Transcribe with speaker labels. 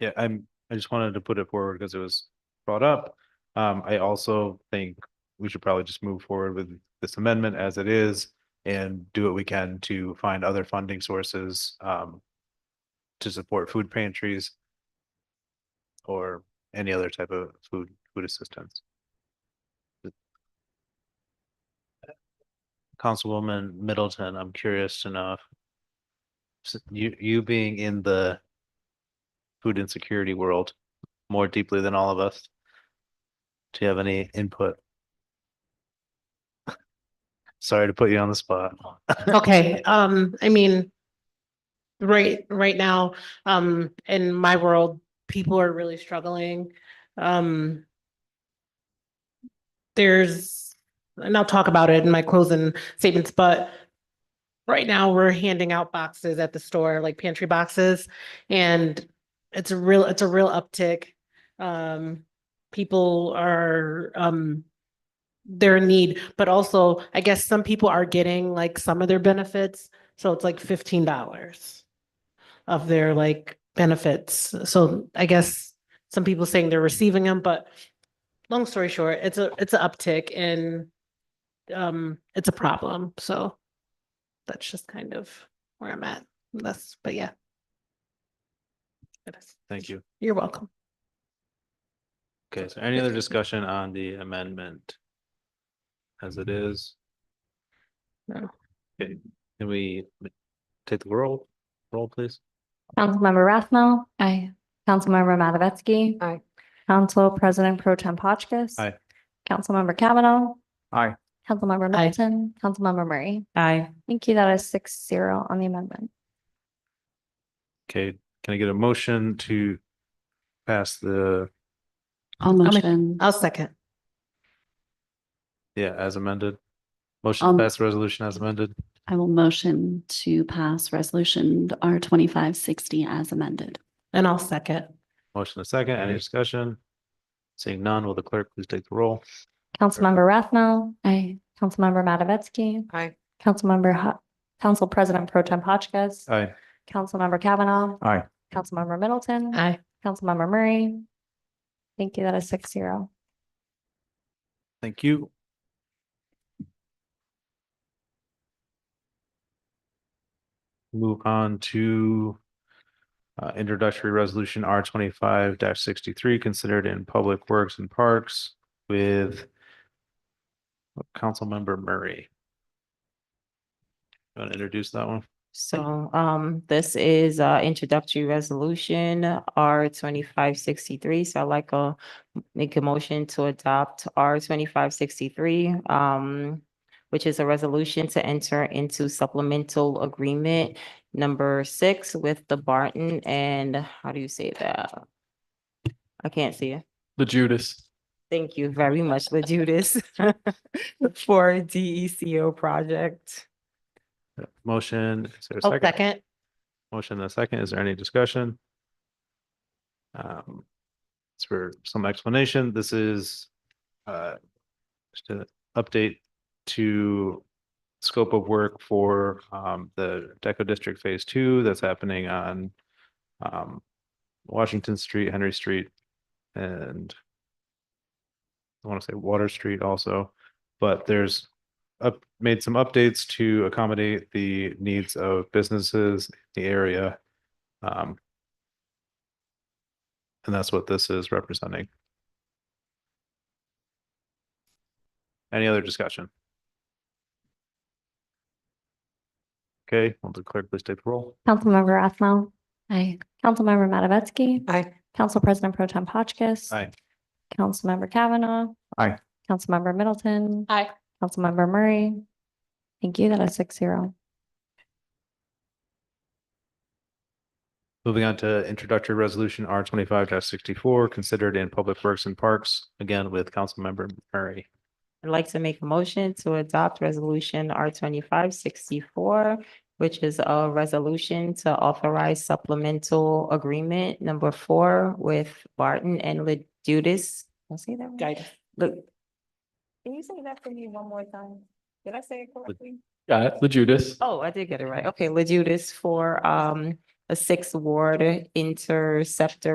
Speaker 1: Yeah, I'm, I just wanted to put it forward because it was brought up. Um, I also think we should probably just move forward with this amendment as it is and do what we can to find other funding sources, um, to support food pantries or any other type of food, food assistance. Councilwoman Middleton, I'm curious to know if s- you, you being in the food insecurity world more deeply than all of us. Do you have any input? Sorry to put you on the spot.
Speaker 2: Okay, um, I mean, right, right now, um, in my world, people are really struggling. Um, there's, and I'll talk about it in my closing statements, but right now we're handing out boxes at the store, like pantry boxes, and it's a real, it's a real uptick. Um, people are, um, their need, but also I guess some people are getting like some of their benefits. So it's like fifteen dollars of their like benefits. So I guess some people saying they're receiving them, but long story short, it's a, it's an uptick and um, it's a problem. So that's just kind of where I'm at. That's, but yeah. It is.
Speaker 1: Thank you.
Speaker 2: You're welcome.
Speaker 1: Okay, so any other discussion on the amendment? As it is?
Speaker 2: No.
Speaker 1: Okay, can we take the roll, roll please?
Speaker 3: Councilmember Rathmel. Aye. Councilmember Matavetsky.
Speaker 4: Aye.
Speaker 3: Council President Pro Tem Hotchkiss.
Speaker 1: Aye.
Speaker 3: Councilmember Kavanaugh.
Speaker 1: Aye.
Speaker 3: Councilmember
Speaker 2: Aye.
Speaker 3: Middleton. Councilmember Murray.
Speaker 4: Aye.
Speaker 3: Thank you. That is six zero on the amendment.
Speaker 1: Okay, can I get a motion to pass the,
Speaker 4: I'll
Speaker 2: make-
Speaker 4: motion.
Speaker 2: I'll second.
Speaker 1: yeah, as amended? Motion
Speaker 4: Um,
Speaker 1: to pass the resolution as amended?
Speaker 4: I will motion to pass resolution R twenty-five sixty as amended.
Speaker 2: And I'll second.
Speaker 1: Motion a second, any discussion? Seeing none, will the clerk please take the roll?
Speaker 3: Councilmember Rathmel.
Speaker 4: Aye.
Speaker 3: Councilmember Matavetsky.
Speaker 4: Aye.
Speaker 3: Councilmember Ho- Council President Pro Tem Hotchkiss.
Speaker 1: Aye.
Speaker 3: Councilmember Kavanaugh.
Speaker 1: Aye.
Speaker 3: Councilmember Middleton.
Speaker 2: Aye.
Speaker 3: Councilmember Murray. Thank you. That is six zero.
Speaker 1: Thank you. Move on to uh, introductory resolution R twenty-five sixty-three, considered in Public Works and Parks with Councilmember Murray. Want to introduce that one?
Speaker 5: So um this is uh introductory resolution R twenty-five sixty-three. So I'd like a make a motion to adopt R twenty-five sixty-three um which is a resolution to enter into supplemental agreement number six with the Barton and how do you say that? I can't see it.
Speaker 6: The Judas.
Speaker 5: Thank you very much, La Judas, for DECO project.
Speaker 1: Motion, is there a
Speaker 2: I'll
Speaker 1: second?
Speaker 2: Oh, second.
Speaker 1: Motion and a second. Is there any discussion? Um, it's for some explanation. This is uh, just an update to scope of work for um, the Deco District Phase Two that's happening on um, Washington Street, Henry Street, and I want to say Water Street also, but there's up, made some updates to accommodate the needs of businesses the area. Um. And that's what this is representing. Any other discussion? Okay, will the clerk please take the roll?
Speaker 3: Councilmember Rathmel.
Speaker 4: Aye.
Speaker 3: Councilmember Matavetsky.
Speaker 5: Aye.
Speaker 3: Council President Pro Tem Hotchkiss.
Speaker 1: Aye.
Speaker 3: Councilmember Kavanaugh.
Speaker 1: Aye.
Speaker 3: Councilmember Middleton.
Speaker 2: Aye.
Speaker 3: Councilmember Murray. Thank you. That is six zero.
Speaker 1: Moving on to introductory resolution R twenty-five sixty-four, considered in Public Works and Parks, again with Councilmember Murray.
Speaker 5: I'd like to make a motion to adopt resolution R twenty-five sixty-four, which is a resolution to authorize supplemental agreement number four with Barton and Ladudis. I'll say that. right. Look. Can you say that for me one more time? Did I say it correctly?
Speaker 6: Got it. The Judas.
Speaker 5: Oh, I did get it right. Okay, Ladudis for um a six ward interceptor